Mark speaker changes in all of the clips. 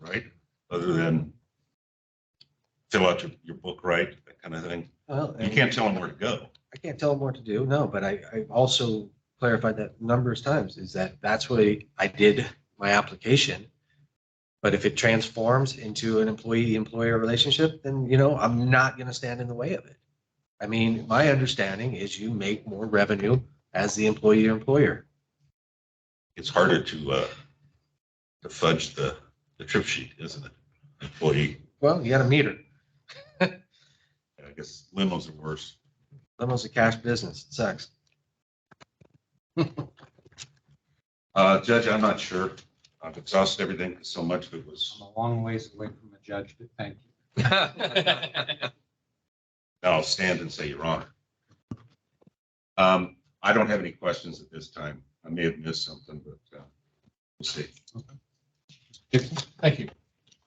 Speaker 1: right? Other than fill out your, your book right, that kind of thing.
Speaker 2: Well,
Speaker 1: You
Speaker 2: and
Speaker 1: can't tell them where to go.
Speaker 2: I can't tell them what to do, no, but I, I also clarified that numerous times, is that that's what I did my application. But if it transforms into an employee-employer relationship, then, you know, I'm not gonna stand in the way of it. I mean, my understanding is you make more revenue as the employee-employer.
Speaker 1: It's harder to, uh, to fudge the, the trip sheet, isn't it? Employee,
Speaker 2: Well, you got a meter,
Speaker 1: I guess limos are worse.
Speaker 2: almost a cash business, it sucks.
Speaker 1: Uh, Judge, I'm not sure. I've exhausted everything 'cause so much of it was,
Speaker 3: I'm a long ways away from a judge, but thank you.
Speaker 1: now I'll stand and say, Your Honor. Um, I don't have any questions at this time. I may have missed something, but, uh, we'll see.
Speaker 4: Thank you.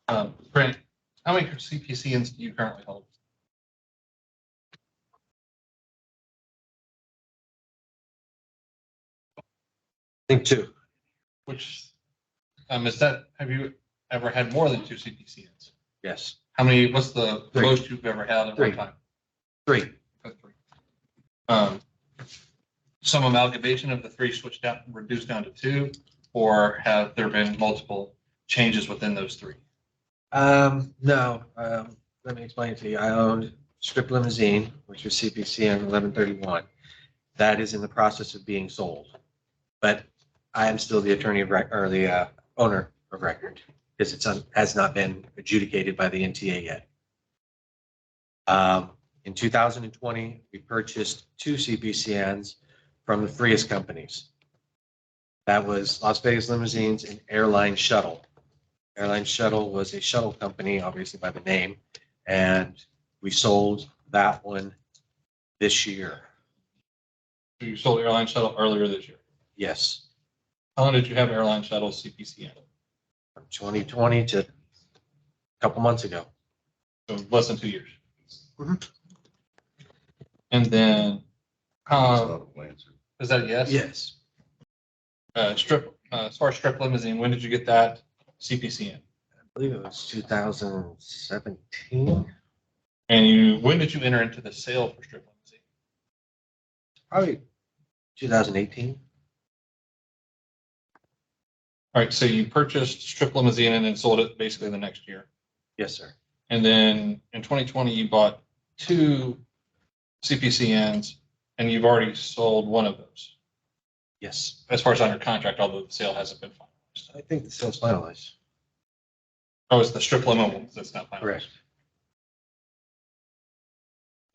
Speaker 4: Um, Brent, how many CPCNs do you currently hold?
Speaker 2: Think two.
Speaker 4: Which, um, is that, have you ever had more than two CPCNs?
Speaker 2: Yes,
Speaker 4: How many, what's the the
Speaker 2: Three.
Speaker 4: most you've ever had at
Speaker 2: Three.
Speaker 4: one time?
Speaker 2: three,
Speaker 4: That's three. Um, Some amalgamation of the three switched out, reduced down to two, or have there been multiple changes within those three?
Speaker 2: Um, no, um, let me explain it to you. I owned Strip Limousine, which was CPC on eleven thirty-one. That is in the process of being sold. But I am still the attorney of record, or the, uh, owner of record, because it's, un- has not been adjudicated by the NTA yet. Um, in two thousand and twenty, we purchased two CPCNs from the freest companies. That was Las Vegas Limousines and Airline Shuttle. Airline Shuttle was a shuttle company, obviously by the name, and we sold that one this year.
Speaker 4: So You sold airline shuttle earlier this year.
Speaker 2: Yes,
Speaker 4: How long did you have airline shuttle CPCN?
Speaker 2: from 2020 to a couple months ago.
Speaker 4: So less than two years.
Speaker 2: Mhm.
Speaker 4: And then,
Speaker 1: That's
Speaker 4: um,
Speaker 1: not a answer.
Speaker 4: is that a yes?
Speaker 2: Yes,
Speaker 4: Uh, strip, uh, as far as strip limousine, when did you get that CPCN?
Speaker 2: I believe it was 2017,
Speaker 4: And you, when did you enter into the sale for strip limousine?
Speaker 2: probably 2018.
Speaker 4: All right, so you purchased strip limousine and then sold it basically the next year.
Speaker 2: Yes, sir.
Speaker 4: And then in twenty twenty, you bought two CPCNs and you've already sold one of those.
Speaker 2: Yes,
Speaker 4: As far as under contract, although the sale hasn't been finalized.
Speaker 2: I think the sale's finalized.
Speaker 4: Oh, it's the strip limo one that's not finalized.
Speaker 2: Correct.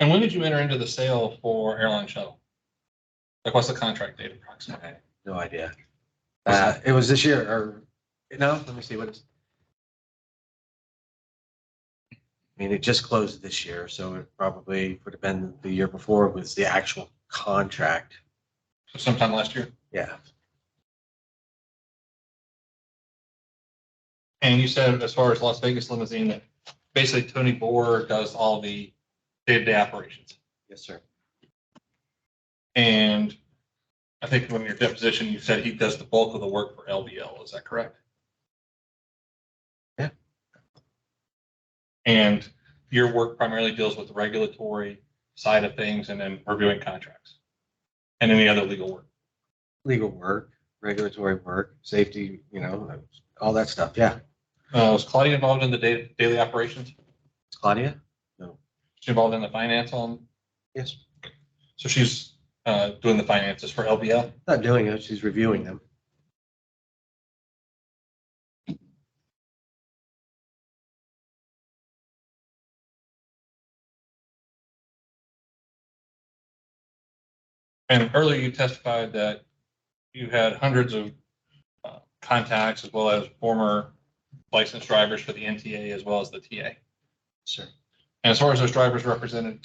Speaker 4: And when did you enter into the sale for airline shuttle? Like, what's the contract date approximately?
Speaker 2: No idea. Uh, it was this year or, no, let me see what it's. I mean, it just closed this year, so it probably would have been the year before was the actual contract.
Speaker 4: So Sometime last year?
Speaker 2: Yeah.
Speaker 4: And you said as far as Las Vegas limousine, that basically Tony Boer does all the day-to-day operations.
Speaker 2: Yes, sir.
Speaker 4: And I think when your deposition, you said he does the bulk of the work for LVL. Is that correct?
Speaker 2: Yeah.
Speaker 4: And your work primarily deals with the regulatory side of things and then reviewing contracts and any other legal work.
Speaker 2: Legal work, regulatory work, safety, you know, all that stuff. Yeah.
Speaker 4: Uh, was Claudia involved in the da- daily operations?
Speaker 2: Claudia?
Speaker 4: She involved in the finance on,
Speaker 2: Yes.
Speaker 4: so she's, uh, doing the finances for LVL?
Speaker 2: Not doing it. She's reviewing them.
Speaker 4: And earlier you testified that you had hundreds of uh, contacts as well as former licensed drivers for the NTA as well as the TA.
Speaker 2: Sir.
Speaker 4: And as far as those drivers represented,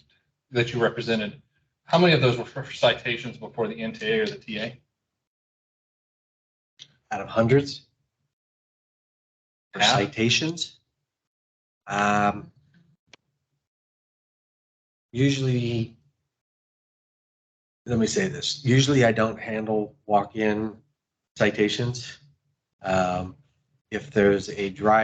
Speaker 4: that you represented, how many of those were for citations before the NTA or the TA?
Speaker 2: Out of hundreds? For
Speaker 4: Half?
Speaker 2: citations? Um. Usually. Let me say this, usually I don't handle walk-in citations. Um, if there's a driver.